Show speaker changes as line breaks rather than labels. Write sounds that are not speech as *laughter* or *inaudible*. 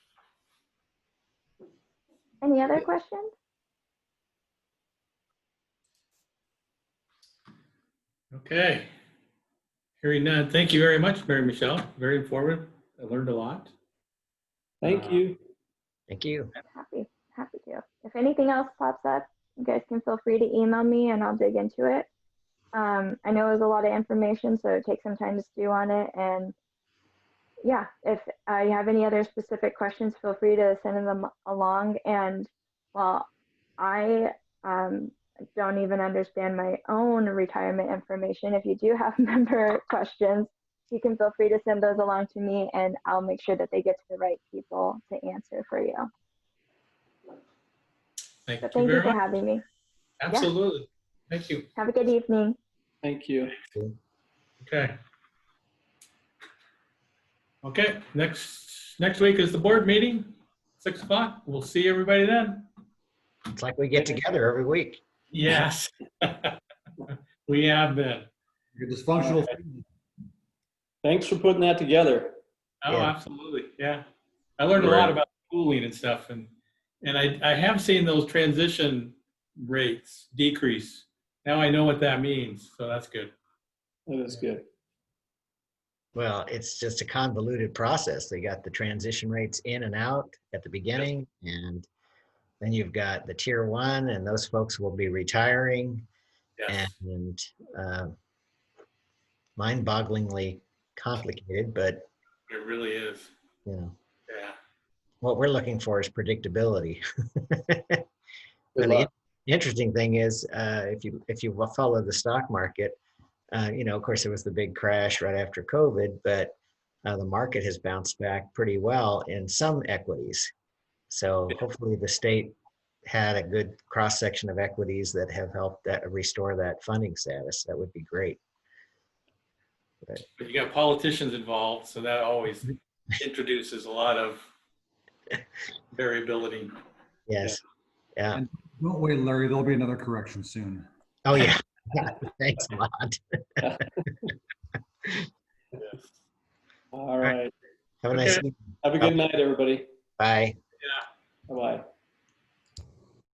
Any other
Yeah.
questions?
Okay. Hearing none, thank you very much, Mary Michelle. Very informative. I learned a lot.
Thank
Uh,
you.
Thank you.
Happy, happy to. If anything else pops up, you guys can feel free to email me and I'll dig into it. Um, I know it was a lot of information, so it takes some time to stew on it. And yeah, if uh, you have any other specific questions, feel free to send them along. And while I um, don't even understand my own retirement information, if you do have *laughs* member questions, you can feel free to send those along to me and I'll make sure that they get to the right people to answer for you.
Thank
But
you
thank you
very
for
much.
having me.
Absolutely. Thank you.
Have a good evening.
Thank you.
Okay. Okay, next, next week is the board meeting, six o'clock. We'll see everybody then.
It's like we get together every week.
Yes. *laughs* We have been.
Your dysfunctional.
Thanks for putting that together.
Oh,
Yeah.
absolutely. Yeah. I learned a lot about cooling and stuff and, and I, I have seen those transition rates decrease. Now I know what that means. So that's good.
That was good.
Well, it's just a convoluted process. They got the transition rates in and out at the beginning, and then you've got the tier one, and those folks will be retiring.
Yes.
And uh, mind bogglingly complicated, but
It really is.
you know,
Yeah.
what we're looking for is predictability. *laughs*
Good
Well, the
luck.
in- interesting thing is, uh, if you if you wa- follow the stock market, uh, you know, of course, there was the big crash right after COVID, but uh, the market has bounced back pretty well in some equities. So
Yeah.
hopefully, the state had a good cross section of equities that have helped that restore that funding status. That would be great.
But you got politicians involved, so that always introduces a lot of variability.
Yes. Yeah.
Don't wait, Larry, there'll be another correction soon.
Oh yeah. *laughs* Thanks a lot.
All right.
Have a nice.
Okay.
Evening.
Have a good night, everybody.
Bye.